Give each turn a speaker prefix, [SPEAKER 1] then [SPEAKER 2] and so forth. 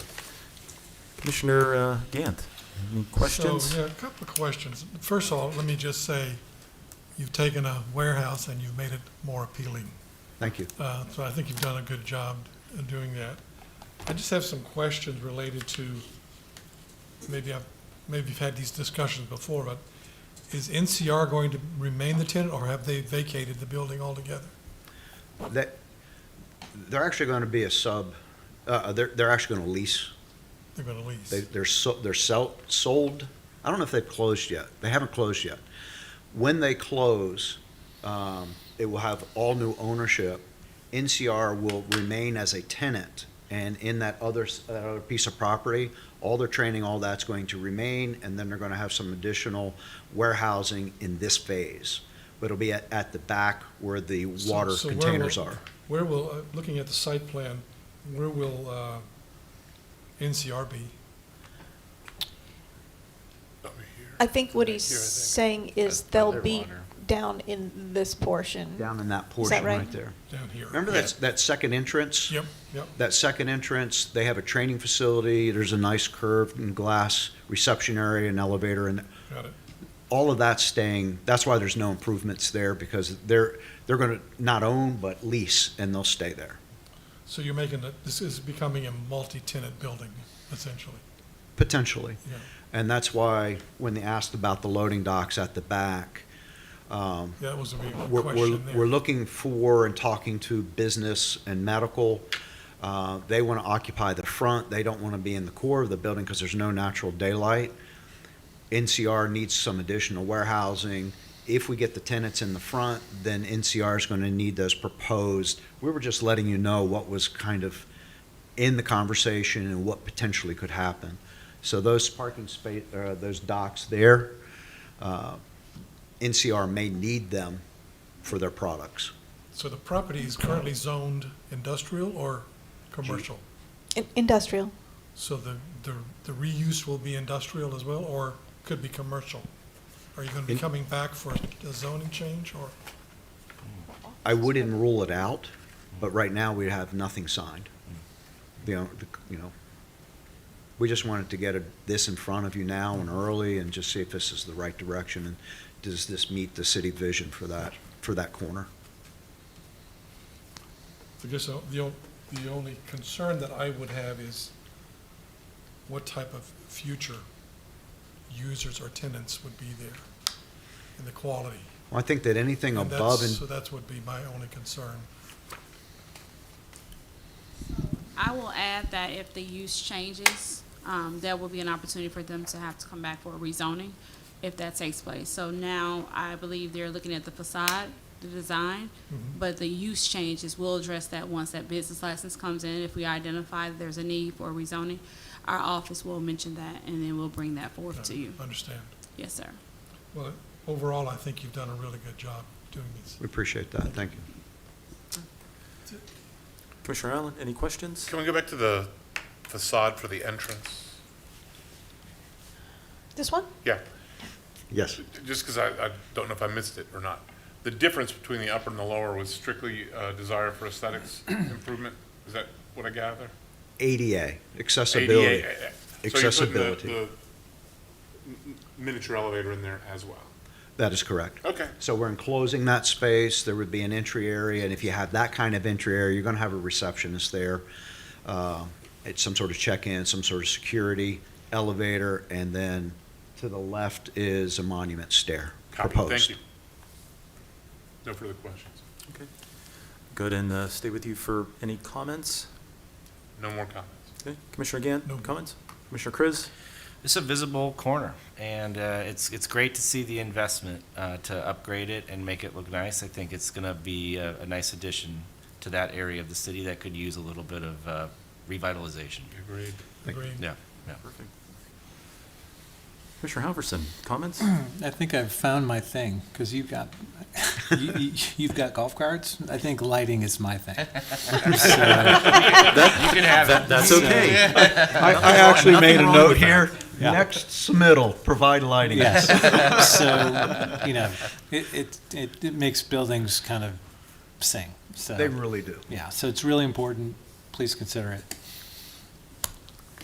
[SPEAKER 1] Commissioner uh, Gant, any questions?
[SPEAKER 2] So, yeah, a couple of questions. First of all, let me just say, you've taken a warehouse and you've made it more appealing.
[SPEAKER 3] Thank you.
[SPEAKER 2] Uh, So I think you've done a good job in doing that. I just have some questions related to, maybe I've, maybe you've had these discussions before, but is NCR going to remain the tenant or have they vacated the building altogether?
[SPEAKER 3] That, they're actually going to be a sub, uh, they're, they're actually going to lease.
[SPEAKER 2] They're going to
[SPEAKER 3] They,
[SPEAKER 2] lease?
[SPEAKER 3] they're, so- they're sell, sold. I don't know if they've closed yet. They haven't closed yet. When they close, um, it will have all new ownership. NCR will remain as a tenant, and in that other, s- that other piece of property, all their training, all that's going to remain, and then they're going to have some additional warehousing in this phase. But it'll be at, at the back where the
[SPEAKER 2] So-
[SPEAKER 3] water
[SPEAKER 2] so where will-
[SPEAKER 3] containers are.
[SPEAKER 2] Where will, uh, looking at the site plan, where will uh, NCR be?
[SPEAKER 4] I think what he's
[SPEAKER 5] Here, I think.
[SPEAKER 4] saying is
[SPEAKER 5] By- by
[SPEAKER 4] they'll
[SPEAKER 5] their
[SPEAKER 4] be
[SPEAKER 5] water.
[SPEAKER 4] down in this portion.
[SPEAKER 3] Down in that portion
[SPEAKER 4] right?
[SPEAKER 3] right there.
[SPEAKER 2] Down here.
[SPEAKER 3] Remember that, that second entrance?
[SPEAKER 2] Yep, yep.
[SPEAKER 3] That second entrance, they have a training facility, there's a nice curved and glass reception area and elevator, and
[SPEAKER 2] Got it.
[SPEAKER 3] all of that's staying, that's why there's no improvements there, because they're, they're gonna not own, but lease, and they'll stay there,
[SPEAKER 2] So you're making, it- this is becoming a multi-tenant building, essentially.
[SPEAKER 3] potentially.
[SPEAKER 2] Yeah.
[SPEAKER 3] And that's why, when they asked about the loading docks at the back, um,
[SPEAKER 2] That was a big
[SPEAKER 3] we're, we're,
[SPEAKER 2] question
[SPEAKER 3] we're
[SPEAKER 2] there.
[SPEAKER 3] looking for and talking to business and medical. Uh, They want to occupy the front, they don't want to be in the core of the building because there's no natural daylight. NCR needs some additional warehousing. If we get the tenants in the front, then NCR is going to need those proposed. We were just letting you know what was kind of in the conversation and what potentially could happen. So those parking space, uh, those docks there, uh, NCR may need them for their products.
[SPEAKER 2] So the property is currently zoned industrial or commercial?
[SPEAKER 4] In- Industrial.
[SPEAKER 2] So the, the the reuse will be industrial as well, or could be commercial? Are you going to be
[SPEAKER 3] In-
[SPEAKER 2] coming back for a zoning change, or?
[SPEAKER 3] I wouldn't rule it out, but right now we have nothing signed. The, o- the- you know, we just wanted to get a- this in front of you now and early and just see if this is the right direction and does this meet the city vision for that, for that corner?
[SPEAKER 2] I guess the, the o- the only concern that I would have is what type of future users or tenants would be there and the quality.
[SPEAKER 3] Well, I think that anything
[SPEAKER 2] And
[SPEAKER 3] above
[SPEAKER 2] that's-
[SPEAKER 3] and
[SPEAKER 2] So that's would be my only concern.
[SPEAKER 6] I will add that if the use changes, um, there will be an opportunity for them to have to come back for a rezoning if that takes place. So now I believe they're looking at the facade, the design, but the use changes will address that once that business license comes in. If we identify that there's a need for rezoning, our office will mention that and then we'll bring that forth to you.
[SPEAKER 2] Understand.
[SPEAKER 6] Yes, sir.
[SPEAKER 2] Well, overall, I think you've done a really good job doing these.
[SPEAKER 3] we appreciate that, thank you.
[SPEAKER 1] Commissioner Allen, any questions?
[SPEAKER 5] Can we go back to the facade for the entrance?
[SPEAKER 4] This one?
[SPEAKER 5] Yeah,
[SPEAKER 3] Yes.
[SPEAKER 5] just because I, I don't know if I missed it or not. The difference between the upper and the lower was strictly a desire for aesthetics improvement? Is that what I gather?
[SPEAKER 3] ADA, accessibility.
[SPEAKER 5] ADA. So
[SPEAKER 3] Accessibility.
[SPEAKER 5] you're putting the- the, m- miniature elevator in there as well?
[SPEAKER 3] That is correct.
[SPEAKER 5] Okay.
[SPEAKER 3] So we're enclosing that space, there would be an entry area, and if you have that kind of entry area, you're gonna have a receptionist there. uh, It's some sort of check-in, some sort of security, elevator, and then to the left is a monument stair
[SPEAKER 5] Copy, thank
[SPEAKER 3] proposed.
[SPEAKER 5] you. No further questions?
[SPEAKER 1] Okay. Good, and uh, stay with you for any comments?
[SPEAKER 5] No more comments?
[SPEAKER 1] Okay, Commissioner Gant,
[SPEAKER 2] No.
[SPEAKER 1] comments? Commissioner Kriz?
[SPEAKER 7] It's a visible corner, and uh, it's it's great to see the investment uh, to upgrade it and make it look nice. I think it's going to be a, a nice addition to that area of the city that could use a little bit of uh, revitalization.
[SPEAKER 5] Agreed.
[SPEAKER 3] Thank
[SPEAKER 2] Agreed.
[SPEAKER 7] Yeah, yeah.
[SPEAKER 1] Perfect. Commissioner Halverson, comments?
[SPEAKER 8] I think I've found my thing, because you've got, you- you- you've got golf carts. I think lighting is my thing.
[SPEAKER 7] You can have it.
[SPEAKER 1] That's okay.
[SPEAKER 3] I, I actually made a note here,
[SPEAKER 8] Yeah.
[SPEAKER 3] next submittal, provide lighting.
[SPEAKER 8] Yes. So, you know, it, it, it it makes buildings kind of sing,
[SPEAKER 3] They
[SPEAKER 8] so,
[SPEAKER 3] really do.
[SPEAKER 8] yeah. So it's really important. Please consider it.